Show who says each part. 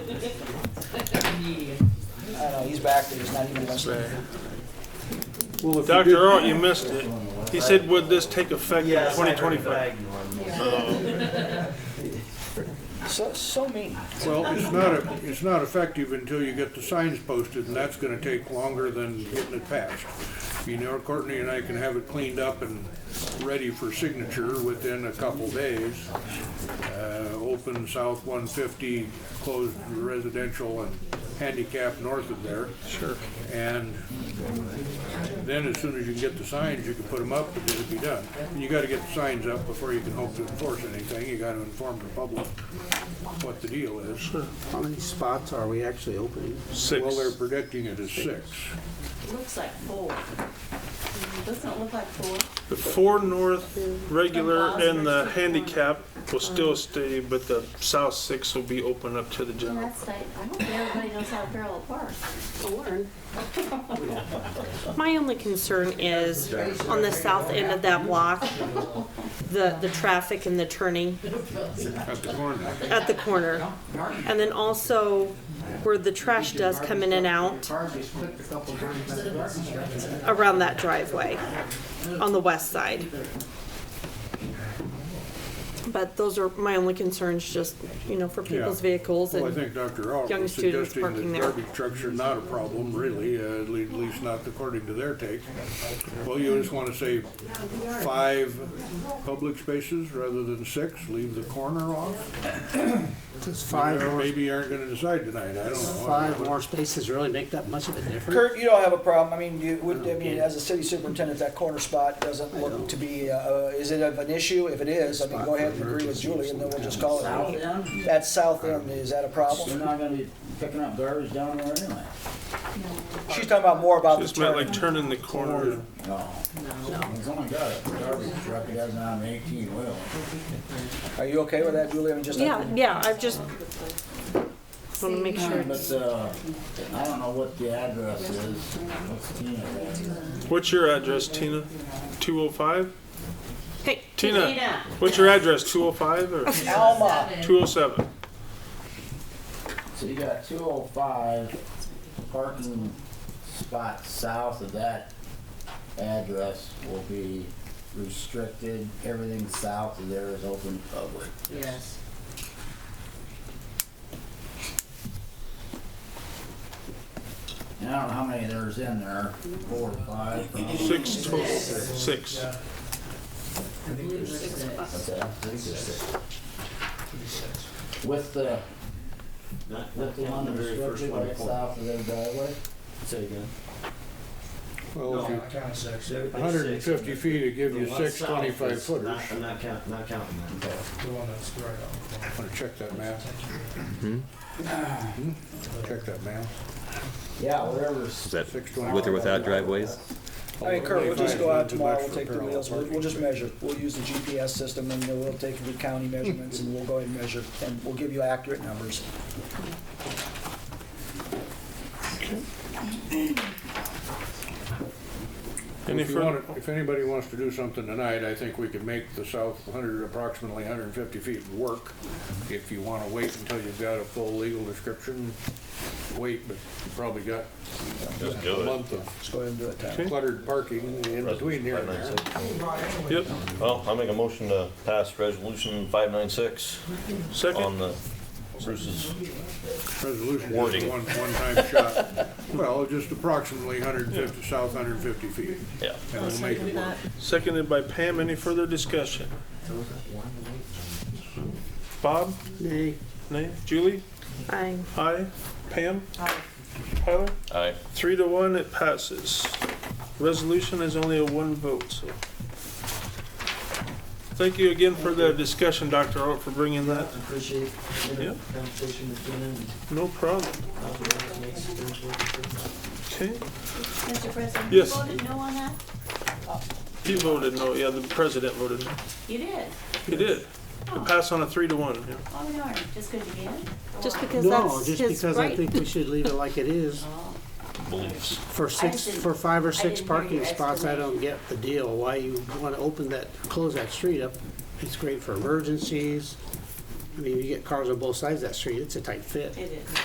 Speaker 1: I don't know, he's back there, he's not even listening.
Speaker 2: Well, if you
Speaker 3: Dr.
Speaker 2: did-
Speaker 3: Earl, you missed it. He said, would this take effect in
Speaker 4: Yes, I heard
Speaker 3: 2025?
Speaker 1: So, so mean.
Speaker 2: Well, it's not, a- it's not effective until you get the signs posted, and that's gonna take longer than getting it passed. You know, Courtney and I can have it cleaned up and ready for signature within a couple days. Uh, open south one fifty, closed residential and handicap north of there. Sure. And then as soon as you can get the signs, you can put them up, and it'll be done. And you gotta get the signs up before you can hope to enforce anything, you gotta inform the public what the deal is.
Speaker 5: How many spots are we actually opening?
Speaker 2: Well, they're
Speaker 3: Six.
Speaker 2: predicting it as six.
Speaker 6: Looks like four. Doesn't it look like four?
Speaker 3: The four north regular and the handicap will still stay, but the south six will be open up to the
Speaker 6: And
Speaker 3: general.
Speaker 6: that's like, I don't think everybody knows how to parallel park.
Speaker 7: My only concern is on the south end of that block, the, the traffic and the turning
Speaker 2: At the corner,
Speaker 7: at the corner. And then also where the trash does come in and out around that driveway on the west side. But those are my only concerns, just, you know, for people's
Speaker 2: Yeah.
Speaker 7: vehicles
Speaker 2: well, I
Speaker 7: and,
Speaker 2: think Dr. Alt
Speaker 7: Young
Speaker 2: was
Speaker 7: students
Speaker 2: suggesting
Speaker 7: parking
Speaker 2: that
Speaker 7: there.
Speaker 2: garbage trucks are not a problem, really, uh, at le- at least not according to their take. Well, you just want to say five public spaces rather than six, leave the corner off?
Speaker 5: Does five
Speaker 2: Or
Speaker 5: more,
Speaker 2: Maybe you aren't going to decide tonight, I don't know.
Speaker 5: five more spaces really make that much of a difference?
Speaker 1: Kurt, you don't have a problem, I mean, you, would, I mean, as a city superintendent, that corner spot doesn't look to be, uh, uh, is it of an issue? If it is, I mean, go ahead and agree with Julie, and then we'll just call it.
Speaker 8: South
Speaker 1: out.
Speaker 8: end,
Speaker 1: That south end, is that a
Speaker 8: they're
Speaker 1: problem?
Speaker 8: not gonna be picking up garbage down there anyway.
Speaker 1: She's talking about more about the
Speaker 3: Just meant like
Speaker 1: turn.
Speaker 3: turning the corner.
Speaker 8: No. It's only got a garbage truck, it has an eighteen wheel.
Speaker 1: Are you okay with that, Julie? I mean, just.
Speaker 7: yeah, yeah, I've just, want to make sure.
Speaker 8: But, uh, I don't know what the address is. What's Tina's address?
Speaker 3: What's your address, Tina? 205?
Speaker 7: Hey,
Speaker 3: Tina, what's your address, 205 or
Speaker 1: Alma,
Speaker 3: 207?
Speaker 8: So you got two oh five parking spot south of that address will be restricted. Everything south of there is open public.
Speaker 9: Yes.
Speaker 8: And I don't know how many there's in there, four or five. probably.
Speaker 3: Six total, six.
Speaker 8: Okay. With the, with the one that's restricted right south of their driveway?
Speaker 2: Well, if you
Speaker 4: counting six.
Speaker 2: 150 feet, it gives you six 25 footers.
Speaker 10: I'm not count, not counting that.
Speaker 4: The one that's right on.
Speaker 2: Want to check that math?
Speaker 11: Hmm?
Speaker 2: Hmm? Check that math.
Speaker 8: Yeah, whatever's,
Speaker 11: that
Speaker 2: Six 25.
Speaker 11: with or without driveways?
Speaker 1: I mean, Kurt, we'll just go out tomorrow, we'll take the
Speaker 2: Parallel
Speaker 1: wheels, we'll,
Speaker 2: parking.
Speaker 1: we'll just measure. We'll use the GPS system, and then we'll take the county measurements, and we'll go ahead and measure, and we'll give you accurate numbers.
Speaker 3: Any
Speaker 2: If you
Speaker 3: further?
Speaker 2: want, if anybody wants to do something tonight, I think we could make the south 100, approximately 150 feet work. If you want to wait until you've got a full legal description, wait, but you probably got
Speaker 11: Just
Speaker 2: a
Speaker 11: do it.
Speaker 2: month of
Speaker 1: Let's go ahead and do it, Tom.
Speaker 2: cluttered parking in between here and there.
Speaker 3: Yep,
Speaker 11: Well, I'll make a motion to pass resolution 596 on
Speaker 3: second.
Speaker 11: the Bruce's.
Speaker 2: Resolution is
Speaker 11: Wording.
Speaker 2: one, one-time shot. Well, just approximately 150, south 150 feet.
Speaker 11: Yeah.
Speaker 2: And we'll make it work.
Speaker 3: Seconded by Pam. Any further discussion? Bob?
Speaker 5: Nay.
Speaker 3: Nay? Julie?
Speaker 7: I,
Speaker 3: Aye. Pam? Aye. Tyler?
Speaker 11: Aye.
Speaker 3: Three to one, it passes. Resolution is only a one vote, so. Thank you again for the discussion, Dr. Art, for bringing that.
Speaker 10: Appreciate
Speaker 3: Yeah.
Speaker 10: the conversation between them.
Speaker 3: No problem.
Speaker 10: I'll be back next Thursday.
Speaker 3: Okay.
Speaker 6: Mr. President?
Speaker 3: Yes.
Speaker 6: You voted no on that?
Speaker 3: He voted no, yeah, the president voted no.
Speaker 6: You did.
Speaker 3: He did. It passed on a three to one, yeah.
Speaker 6: Oh, darn, just because you did?
Speaker 7: just because
Speaker 5: No,
Speaker 7: that's
Speaker 5: just
Speaker 7: his
Speaker 5: because I
Speaker 7: right.
Speaker 5: think we should leave it like it is.
Speaker 11: Beliefs.
Speaker 5: For six,
Speaker 6: didn't-
Speaker 5: for five or
Speaker 6: I didn't
Speaker 5: six
Speaker 6: hear
Speaker 5: parking
Speaker 6: your
Speaker 5: spots, I don't get the deal, why you wanna open that, close that street up. It's great for emergencies. I mean, you get cars on both sides of that street, it's a tight fit.
Speaker 6: It is.